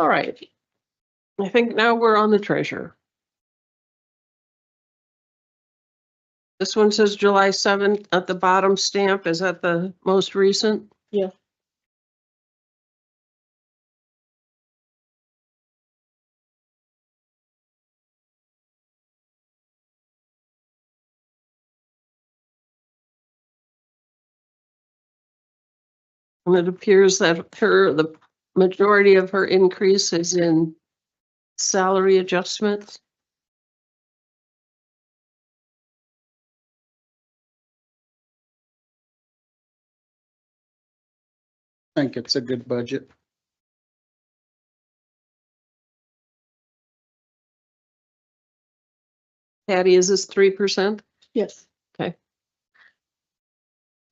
All right. I think now we're on the treasurer. This one says July 7th at the bottom stamp. Is that the most recent? Yeah. And it appears that her, the majority of her increase is in salary adjustments. I think it's a good budget. Patty, is this three percent? Yes. Okay.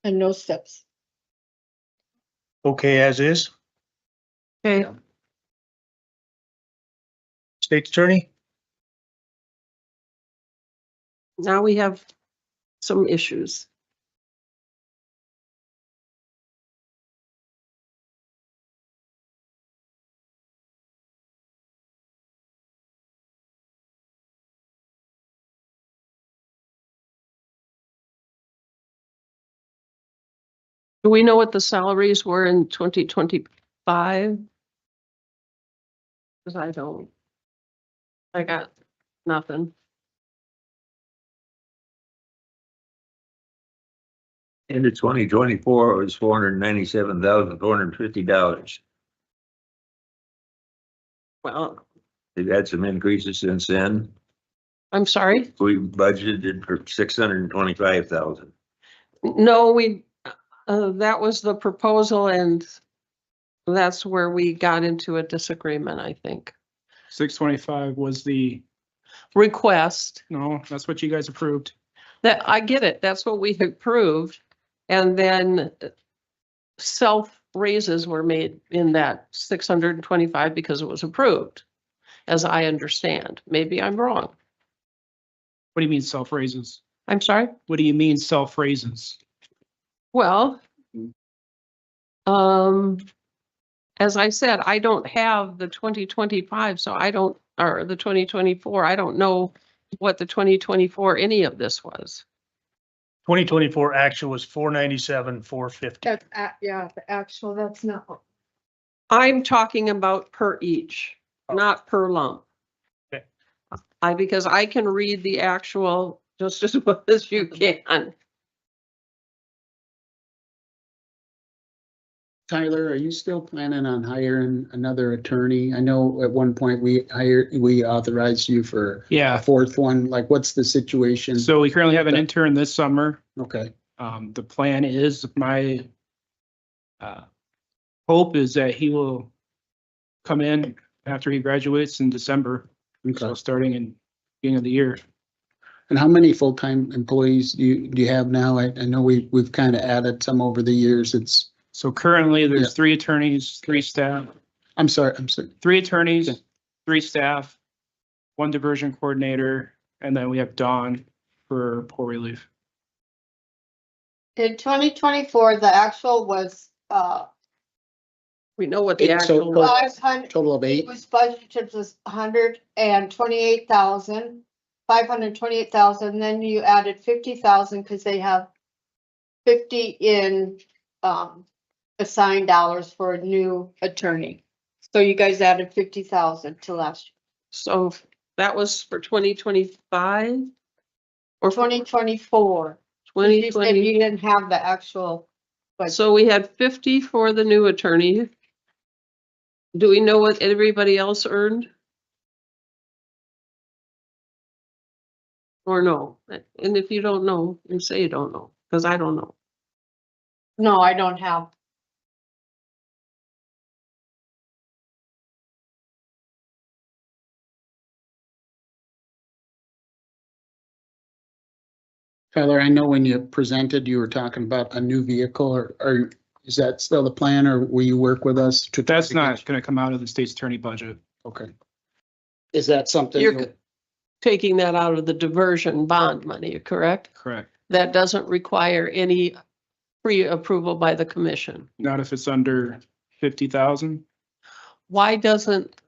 And no steps. Okay, as is. Okay, Yeah. State's attorney? now we have some issues. Do we know what the salaries were in twenty twenty-five? Cause I don't. I got nothing. Into twenty twenty-four, it was four hundred ninety-seven thousand, four hundred fifty dollars. Well, They've had some increases since then. I'm sorry. We budgeted for six hundred and twenty-five thousand. No, we, uh, that was the proposal and that's where we got into a disagreement, I think. Six twenty-five was the, Request no, that's what you guys approved. that, I get it. That's what we approved. And then uh, self raises were made in that six hundred and twenty-five because it was approved, as I understand. Maybe I'm wrong. What do you mean self-raises? I'm sorry. What do you mean self-raises? Well, um, as I said, I don't have the twenty twenty-five, so I don't, or the twenty twenty-four, I don't know what the twenty twenty-four, any of this was. Twenty twenty-four actual was four ninety-seven, four fifty. That's, a- yeah, the actual, that's not. what- I'm talking about per each, not per lump. Okay. I, because I can read the actual just as well as you can. Tyler, are you still planning on hiring another attorney? I know at one point we hired, we authorized you for a Yeah, fourth one. Like, what's the situation? so we currently have an intern this summer. Okay, Um, the plan is my uh, hope is that he will come in after he graduates in December, so okay. starting in beginning of the year. And how many full-time employees do you, do you have now? I, I know we, we've kind of added some over the years. It's, So currently, Yeah. there's three attorneys, three staff, I'm sorry, I'm sorry. three Okay. attorneys, three staff, one diversion coordinator, and then we have Dawn for poor relief. In twenty twenty-four, the actual was, uh, We know what the It- so actual, per- was. five hundred, Total of it eight? was budgeted as hundred and twenty-eight thousand, five hundred twenty-eight thousand, then you added fifty thousand, cause they have fifty in, um, assigned dollars for a new attorney. So you guys added fifty thousand to last, so that was for twenty twenty-five? Or twenty twenty-four. twenty twenty? You didn't have the actual, Right. So we had fifty for the new attorney. Do we know what everybody else earned? Or no? And if you don't know, you say you don't know, because I don't know. no, I don't have Tyler, I know when you presented, you were talking about a new vehicle or, or is that still the plan or will you work with us to? That's not going to come out of the state's attorney budget. Okay. Is that something? You're c- taking that out of the diversion bond money, correct? Correct. That doesn't require any pre-approval by the commission. Not if it's under fifty thousand. why doesn't